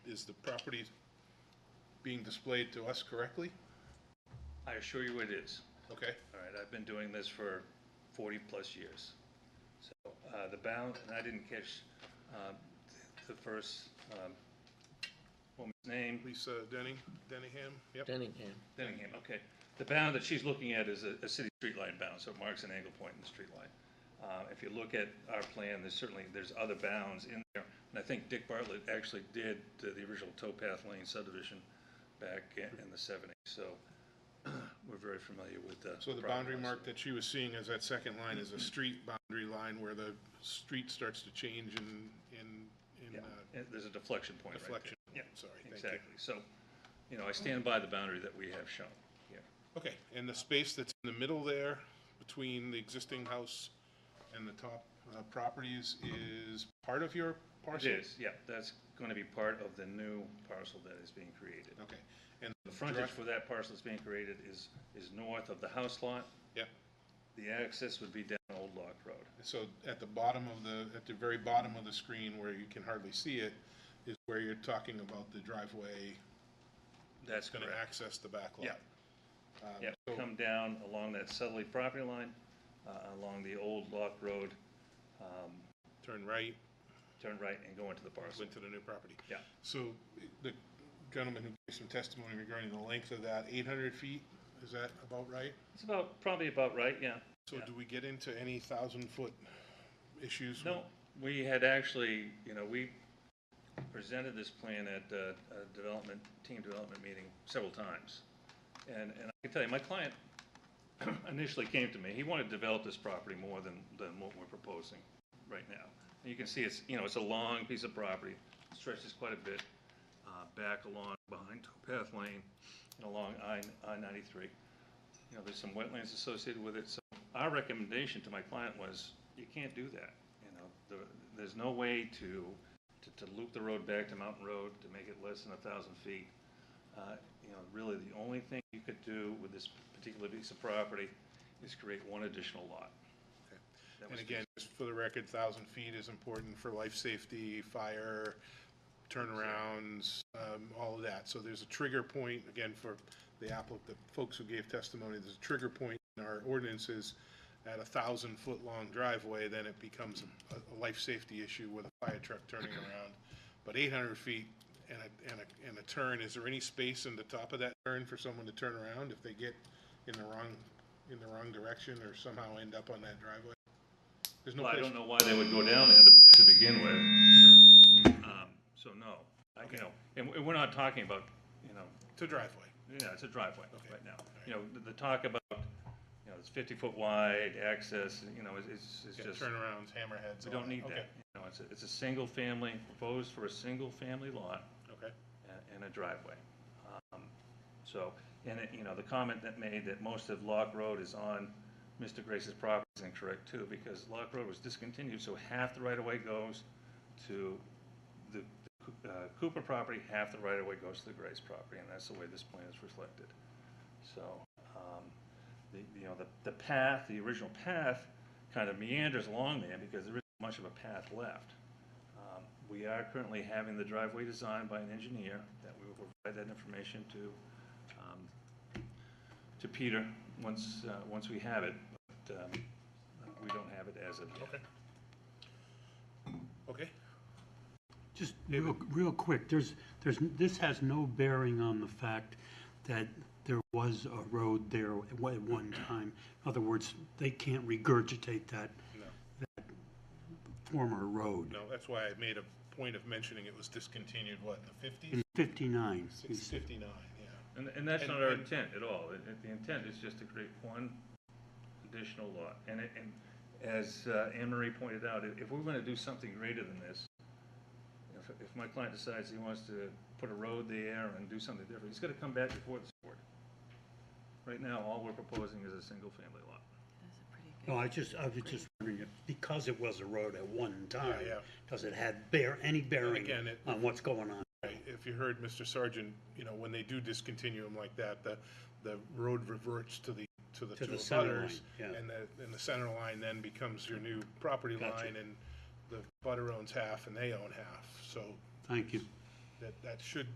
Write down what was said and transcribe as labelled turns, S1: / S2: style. S1: is the property being displayed to us correctly?
S2: I assure you it is.
S1: Okay,
S2: All right, I've been doing this for 40-plus years. So uh, the bound, and I didn't catch um, th- the first um, woman's name.
S1: Lisa Denning, Denningham, yep.
S3: Denningham.
S2: Denningham, okay. The bound that she's looking at is a, a city street line bound, so it marks an angle point in the street line. Uh, if you look at our plan, there's certainly, there's other bounds in there, and I think Dick Bartlett actually did the, the original towpath lane subdivision back in in the seventies, so we're very familiar with the.
S1: So the boundary mark that she was seeing as that second line is a
S2: Mm-hmm.
S1: street boundary line where the street starts to change in, in, in
S2: Yeah,
S1: uh,
S2: and there's a deflection point right there.
S1: deflection.
S2: Yeah,
S1: Sorry, thank you.
S2: exactly. So, you know, I stand by the boundary that we have shown here.
S1: Okay, and the space that's in the middle there between the existing house and the top uh, properties is part of your
S2: Mm-hmm. It
S1: parcel?
S2: is, yeah, that's gonna be part of the new parcel that is being created.
S1: Okay, and
S2: The frontage for that parcel that's being created is, is north of the house lot.
S1: yeah,
S2: The access would be down Old Lock Road.
S1: so at the bottom of the, at the very bottom of the screen where you can hardly see it is where you're talking about the driveway
S2: That's
S1: going to
S2: correct.
S1: access the back lot.
S2: Yeah.
S1: Um,
S2: Yeah,
S1: so-
S2: come down along that southerly property line, uh, along the Old Lock Road, um,
S1: Turn right,
S2: turn right and go into the parcel.
S1: went to the new property.
S2: Yeah,
S1: So the gentleman who gave some testimony regarding the length of that, 800 feet, is that about right?
S2: it's about, probably about right, yeah.
S1: So
S2: Yeah.
S1: do we get into any thousand-foot issues?
S2: No, we had actually, you know, we presented this plan at uh, a development, team development meeting several times. And, and I can tell you, my client initially came to me, he wanted to develop this property more than, than what we're proposing right now. And you can see it's, you know, it's a long piece of property, stretches quite a bit, uh, back along behind Towpath Lane and along I, I ninety-three. You know, there's some wetlands associated with it, so our recommendation to my client was, you can't do that, you know? There, there's no way to, to, to loop the road back to Mountain Road, to make it less than a thousand feet. Uh, You know, really, the only thing you could do with this particular piece of property is create one additional lot. That
S1: And
S2: was-
S1: again, just for the record, thousand feet is important for life safety, fire, turnarounds, um, all of that. So there's a trigger point, again, for the applicant, the folks who gave testimony, there's a trigger point in our ordinances. At a thousand foot long driveway, then it becomes a, a life safety issue with a fire truck turning around. But eight hundred feet and a, and a, and a turn, is there any space in the top of that turn for someone to turn around if they get in the wrong, in the wrong direction or somehow end up on that driveway? There's no
S2: Well, I
S1: place-
S2: don't know why they would go down there to- to begin with. Um, So, no, I, you know, and we- we're not talking about, you know,
S1: to driveway.
S2: Yeah, it's a driveway
S1: Okay.
S2: right now. You know, the- the talk about, you know, it's 50-foot wide, access, you know, it's- it's it's
S1: Yeah,
S2: just,
S1: turnarounds, hammerheads.
S2: we
S1: all
S2: don't need
S1: Okay,
S2: that. You know, it's a, it's a single family, proposed for a single family lot
S1: Okay,
S2: a- and a driveway. Um, So, and, it- you know, the comment that made that most of Lock Road is on Mr. Grace's property is incorrect too, because Lock Road was discontinued, so half the right-of-way goes to the uh, Cooper property, half the right-of-way goes to the Grace property, and that's the way this plan is reflected. So, um, the, you know, the, the path, the original path kind of meanders along there because there isn't much of a path left. Um, We are currently having the driveway designed by an engineer that we will provide that information to, um, to Peter once, uh, once we have it. But, um, we don't have it as of yet.
S1: okay.
S4: Just real, real quick, there's, there's, this has no bearing on the fact that there was a road there at one- at one time. In other words, they can't regurgitate that,
S1: No.
S4: that former road.
S1: No, that's why I made a point of mentioning it was discontinued, what, in the
S4: In
S1: fifties?
S4: fifty-nine,
S1: Six fifty-nine, yeah.
S2: And, and that's
S1: And-
S2: not our
S1: and-
S2: intent at all. It- it- The intent is just to create one additional lot. And, it- and as uh, Anne Marie pointed out, if if we're gonna do something greater than this, if, if my client decides he wants to put a road there and do something different, he's gotta come back before this board. Right now, all we're proposing is a single-family lot.
S5: That's a pretty good.
S4: no, I just, I was just wondering, if because it was a road at one time,
S1: yeah.
S4: does it have bear, any bearing
S1: again, it-
S4: on what's going on?
S1: Right, If you heard Mr. Sargent, you know, when they do discontinue them like that, the, the road reverts to the, to the
S4: To
S1: two
S4: the
S1: abutters,
S4: center line, yeah.
S1: And the, and the center line then becomes your new property
S4: Gotcha.
S1: line, and the butter owns half and they own half, so
S4: Thank you.
S1: that, that should